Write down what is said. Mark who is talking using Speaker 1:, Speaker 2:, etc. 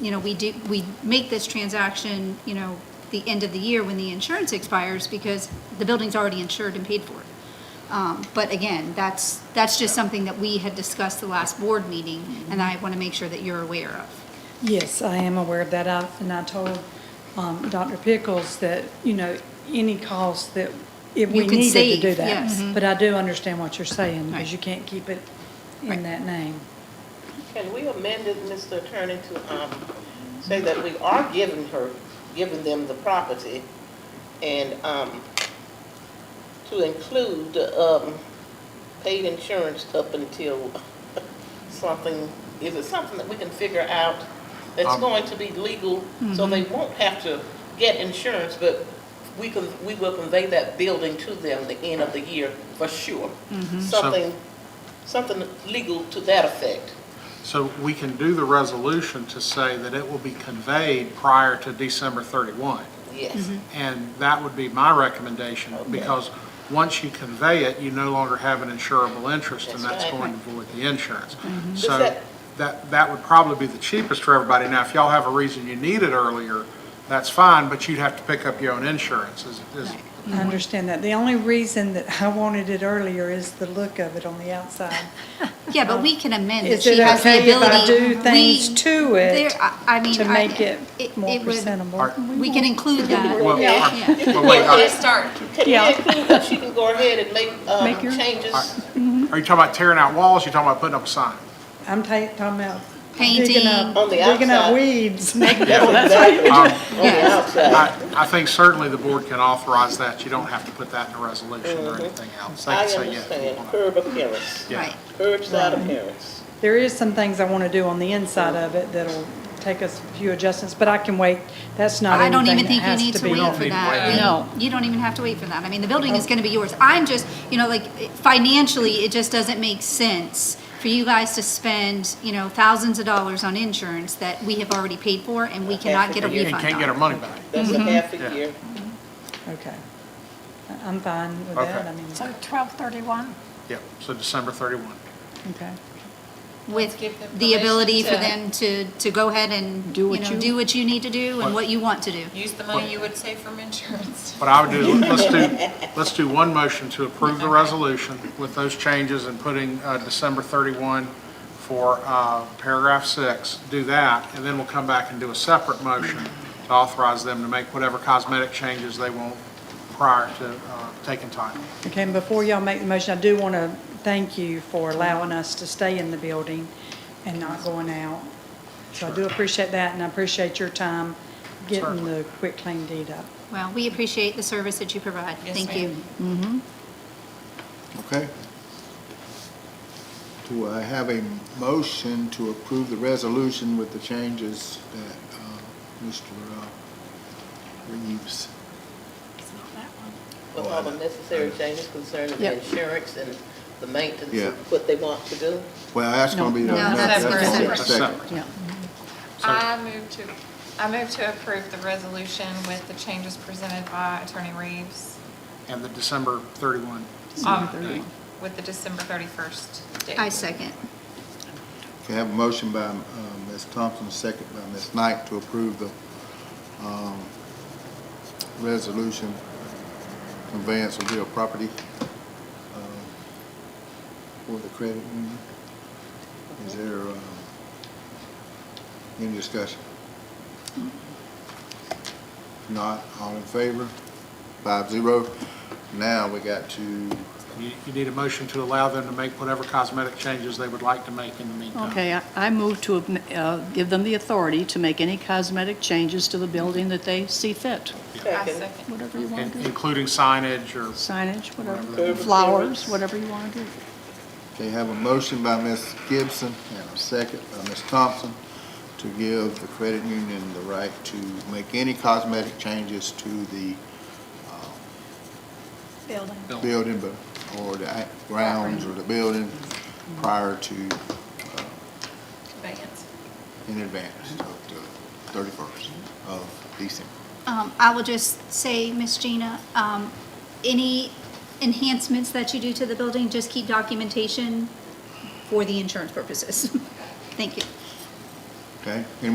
Speaker 1: you know, we do, we make this transaction, you know, the end of the year when the insurance expires because the building's already insured and paid for. Um, But again, that's, that's just something that we had discussed the last board meeting, and I want to make sure that you're aware of.
Speaker 2: Yes, I am aware of that, I- and I told um, Dr. Pickles that, you know, any cost that, if
Speaker 1: You
Speaker 2: we
Speaker 1: can
Speaker 2: needed to do
Speaker 1: save, yes.
Speaker 2: that.
Speaker 1: Mhm.
Speaker 2: But I do understand what you're saying,
Speaker 1: Right.
Speaker 2: because you can't keep it
Speaker 1: Right.
Speaker 2: in that name.
Speaker 3: Can we amend it, Mr. Attorney, to um, say that we are giving her, giving them the property and um, to include um, paid insurance up until something, is it something that we can figure out that's
Speaker 4: Um,
Speaker 3: going to be legal? So they won't have to get insurance, but we can, we will convey that building to them the end of the year for sure. Something, something legal to that effect.
Speaker 4: So we can do the resolution to say that it will be conveyed prior to December 31.
Speaker 3: Yes.
Speaker 4: And that would be my recommendation, because once you convey it, you no longer have an insurable interest, and
Speaker 3: That's
Speaker 4: that's
Speaker 3: right.
Speaker 4: going to void the insurance.
Speaker 3: Does
Speaker 4: So
Speaker 3: that-
Speaker 4: that, that would probably be the cheapest for everybody. Now, if y'all have a reason you need it earlier, that's fine, but you'd have to pick up your own insurance, is, is,
Speaker 1: Mm-hmm.
Speaker 2: I understand that. The only reason that I wanted it earlier is the look of it on the outside.
Speaker 1: Yeah, but we can amend that
Speaker 2: Is
Speaker 1: she
Speaker 2: it
Speaker 1: has the
Speaker 2: okay if I
Speaker 1: ability.
Speaker 2: do things
Speaker 1: We-
Speaker 2: to it
Speaker 1: there- I- I mean,
Speaker 2: to
Speaker 1: I-
Speaker 2: make it more
Speaker 1: was-
Speaker 2: presentable?
Speaker 4: Are-
Speaker 1: We can include that.
Speaker 4: well,
Speaker 1: Yeah.
Speaker 4: are- well, wait, uh, are-
Speaker 3: Can
Speaker 2: Yeah.
Speaker 3: we include that she can go ahead and make, um,
Speaker 2: Make your-
Speaker 3: changes?
Speaker 4: are you talking about tearing out walls, you talking about putting up a sign?
Speaker 2: I'm ta- talking about
Speaker 1: Painting.
Speaker 2: digging up,
Speaker 3: On the
Speaker 2: digging
Speaker 3: outside.
Speaker 2: up weeds.
Speaker 3: Exactly. On the
Speaker 1: Yes.
Speaker 3: outside.
Speaker 4: Um, I, I think certainly the board can authorize that. You don't have to put that in a resolution or anything else.
Speaker 3: Mm-hmm.
Speaker 4: They
Speaker 3: I
Speaker 4: can say, yes, we
Speaker 3: understand,
Speaker 4: want to-
Speaker 3: curb appearance,
Speaker 4: Yeah. Mm-hmm.
Speaker 1: Right.
Speaker 3: curbside appearance.
Speaker 2: There is some things I want to do on the inside of it that'll take us a few adjustments, but I can wait. That's not
Speaker 1: I don't
Speaker 2: anything
Speaker 1: even think
Speaker 2: that
Speaker 1: you
Speaker 2: has
Speaker 1: need
Speaker 2: to
Speaker 1: to
Speaker 2: be.
Speaker 1: wait
Speaker 4: don't
Speaker 1: for
Speaker 4: need to
Speaker 1: that.
Speaker 4: wait.
Speaker 1: We-
Speaker 2: No.
Speaker 1: You don't even have to wait for that. I mean, the building is gonna be yours. I'm just, you know, like, financially, it just doesn't make sense for you guys to spend, you know, thousands of dollars on insurance that we have already paid for and we cannot get a
Speaker 3: And
Speaker 4: And
Speaker 1: refund
Speaker 4: can't get our
Speaker 1: on.
Speaker 4: money back.
Speaker 3: That's a half
Speaker 4: Mm-hmm. Yeah.
Speaker 3: a year.
Speaker 2: Okay. I- I'm fine with that.
Speaker 4: Okay.
Speaker 2: I mean,
Speaker 5: So 1231?
Speaker 4: Yeah, so December 31.
Speaker 2: okay.
Speaker 1: With
Speaker 6: Give them
Speaker 1: the
Speaker 6: permission
Speaker 1: ability for
Speaker 6: to-
Speaker 1: them to, to go ahead and,
Speaker 2: Do
Speaker 1: you
Speaker 2: what
Speaker 1: know,
Speaker 2: you-
Speaker 1: do what you need to do and what you want to do.
Speaker 6: Use the money you would save from insurance.
Speaker 4: What I would do, let's do, let's do one motion to approve the resolution with those changes and putting uh, December 31 for uh, paragraph six. Do that, and then we'll come back and do a separate motion to authorize them to make whatever cosmetic changes they want prior to uh, taking time.
Speaker 2: Okay, and before y'all make the motion, I do want to thank you for allowing us to stay in the building and not going out. So I do appreciate that, and I appreciate your time getting
Speaker 4: Certainly.
Speaker 2: the quick clean deed up.
Speaker 1: Well, we appreciate the service that you provide.
Speaker 6: Yes,
Speaker 1: Thank you.
Speaker 7: Okay. Do I have a motion to approve the resolution with the changes that uh, Mr. Reeves?
Speaker 5: It's not that one.
Speaker 3: With all the necessary changes concerning the
Speaker 2: Yep.
Speaker 3: insurance and the maintenance,
Speaker 7: Yeah.
Speaker 3: of what they want to do.
Speaker 7: Well, that's going to be. the-
Speaker 2: No.
Speaker 1: No,
Speaker 6: that's
Speaker 7: the
Speaker 6: separate.
Speaker 7: second.
Speaker 2: Yeah.
Speaker 6: I move to, I move to approve the resolution with the changes presented by Attorney Reeves
Speaker 4: And the December 31
Speaker 6: um, with the December 31st date.
Speaker 1: I second.
Speaker 7: Okay, I have a motion by um, Ms. Thompson, second by Ms. Knight to approve the um, resolution conveyance of real property um, for the credit union. Is there um, any discussion? If Not, all in favor? Five zero. Now we got to,
Speaker 4: You, you need a motion to allow them to make whatever cosmetic changes they would like to make in the meantime.
Speaker 8: Okay, I- I move to uh, give them the authority to make any cosmetic changes to the building that they see fit,
Speaker 6: I
Speaker 3: Second.
Speaker 6: second.
Speaker 8: whatever you want
Speaker 4: In-
Speaker 8: to do,
Speaker 4: Including signage or,
Speaker 8: signage,
Speaker 4: Whatever.
Speaker 8: whatever, flowers, whatever you want to do.
Speaker 7: okay, have a motion by Ms. Gibson and a second by Ms. Thompson to give the credit union the right to make any cosmetic changes to the
Speaker 5: Building.
Speaker 7: building, but, or the a- grounds or the building prior to,
Speaker 6: Conveyance.
Speaker 7: in advance of the thirty-first of December.
Speaker 1: Um, I will just say, Miss Gina, um, any enhancements that you do to the building, just keep documentation for the insurance purposes. Thank you.
Speaker 7: Okay? Any